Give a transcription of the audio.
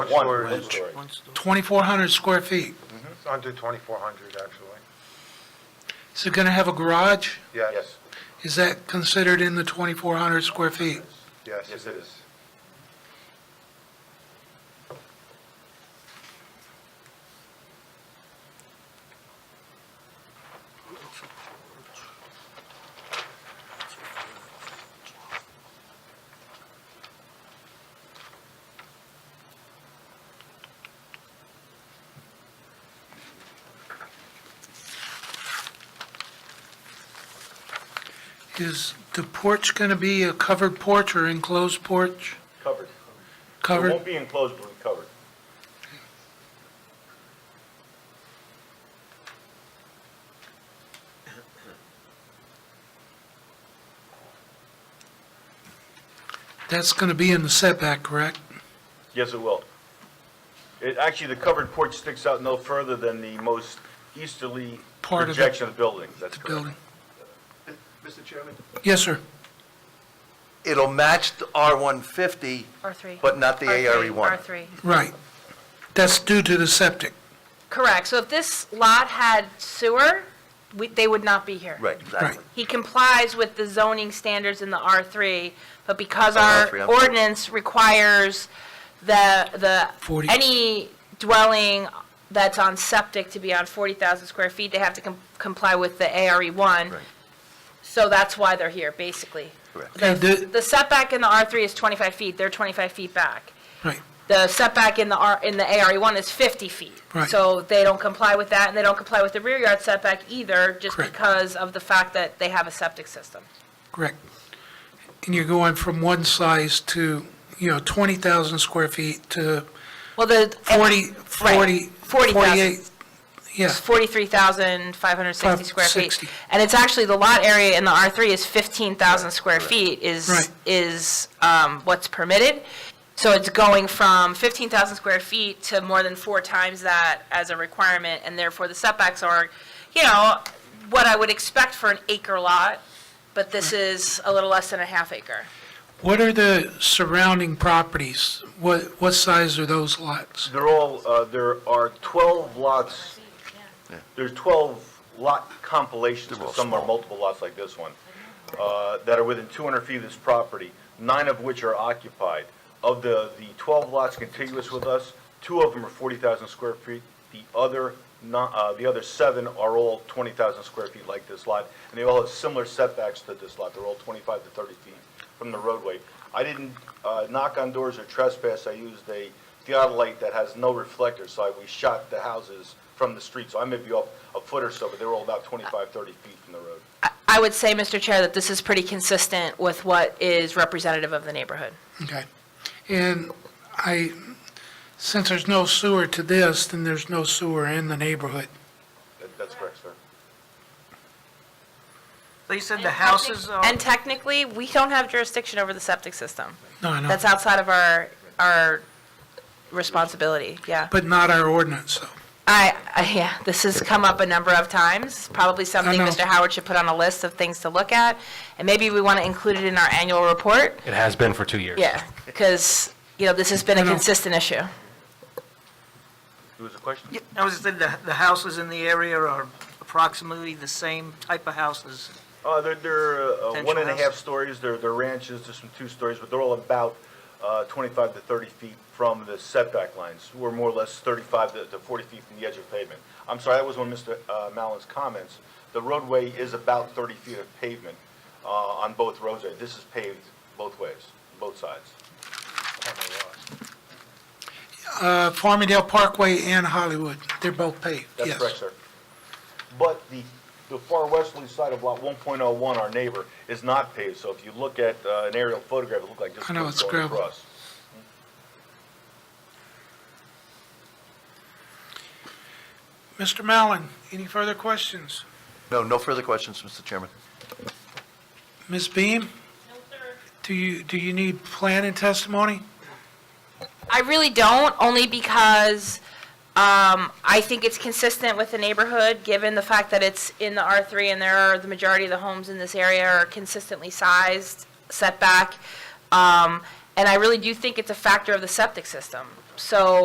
One, story. one story. 2,400 square feet. It's under 2,400, actually. Is it going to have a garage? Yes, Is that considered in the 2,400 square feet? yes, Yes, it it is. Is the porch going to be a covered porch or enclosed porch? Covered. It Covered? won't be enclosed, but covered. That's going to be in the setback, correct? Yes, it will. It, actually, the covered porch sticks out no further than the most easterly Part of the- projection of the building. That's The correct. building? Mr. Chairman? Yes, sir. It'll match the R-150, R3. but not the E R3, ARE1. R3. Right. That's due to the septic. Correct. So if this lot had sewer, we- they would not be here. Right, exactly. He complies with the zoning standards in the R3, but because Oh, our R3, I'm sorry. ordinance requires the, the, Forty. any dwelling that's on septic to be on 40,000 square feet, they have to com- comply with the ARE1. Right. So that's why they're here, basically. Correct. Okay, the- The setback in the R3 is 25 feet, they're 25 feet back. Right. the setback in the R, in the ARE1 is 50 feet. Right. So they don't comply with that, and they don't comply with the rear yard setback either, just Correct. because of the fact that they have a septic system. Correct. And you're going from one size to, you know, 20,000 square feet to Well, the. 40, Right. 40, 40,000. 48. Yeah, It's 43,560 Five- square feet. 60. And it's actually, the lot area in the R3 is 15,000 square feet Right. is, is um, what's permitted. So it's going from 15,000 square feet to more than four times that as a requirement, and therefore the setbacks are, you know, what I would expect for an acre lot, but this is a little less than a half acre. What are the surrounding properties? What, what size are those lots? They're all, uh, there are 12 lots, there's 12 lot compilations, They're all some are small. multiple lots like this one, uh, that are within 200 feet of this property, nine of which are occupied. Of the, the 12 lots contiguous with us, two of them are 40,000 square feet, the other, no- uh, the other seven are all 20,000 square feet like this lot, and they all have similar setbacks to this lot, they're all 25 to 30 feet from the roadway. I didn't uh, knock on doors or trespass, I used a theodolite that has no reflector, so I- we shot the houses from the street, so I may be off a foot or so, but they were all about 25, 30 feet from the road. I would say, Mr. Chair, that this is pretty consistent with what is representative of the neighborhood. Okay. And I, since there's no sewer to this, then there's no sewer in the neighborhood. That- That's correct, sir. They said the houses are, And technically, we don't have jurisdiction over the septic system. No, I know, That's outside of our, our responsibility, yeah. but not our ordinance, though. I, I- yeah, this has come up a number of times, probably something know. Mr. Howard should put on a list of things to look at, and maybe we want to include it in our annual report, It has been for two years. yeah, because, you know, this has been a I know. consistent issue. There was a question? I was said the, the houses in the area are approximately the same type of houses. Uh, they're, they're uh, one and a Potential half house. stories, they're, they're ranches, there's some two stories, but they're all about uh, 25 to 30 feet from the setback lines. We're more or less 35 to to 40 feet from the edge of pavement. I'm sorry, that was one of Mr. uh, Mallon's comments. The roadway is about 30 feet of pavement uh, on both roads. This is paved both ways, both sides. Uh, Farmingdale Parkway and Hollywood, they're both paved, That's yes. correct, sir. But the, the far westerly side of Lot 1.01, our neighbor, is not paved, so if you look at uh, an aerial photograph, it looked like just I know, it's going gravel. across. Mr. Mallon, any further questions? No, no further questions, Mr. Chairman. Ms. Beam? Do you, do you need planning testimony? I really don't, only because um, I think it's consistent with the neighborhood, given the fact that it's in the R3 and there are, the majority of the homes in this area are consistently sized, setback. Um, And I really do think it's a factor of the septic system. So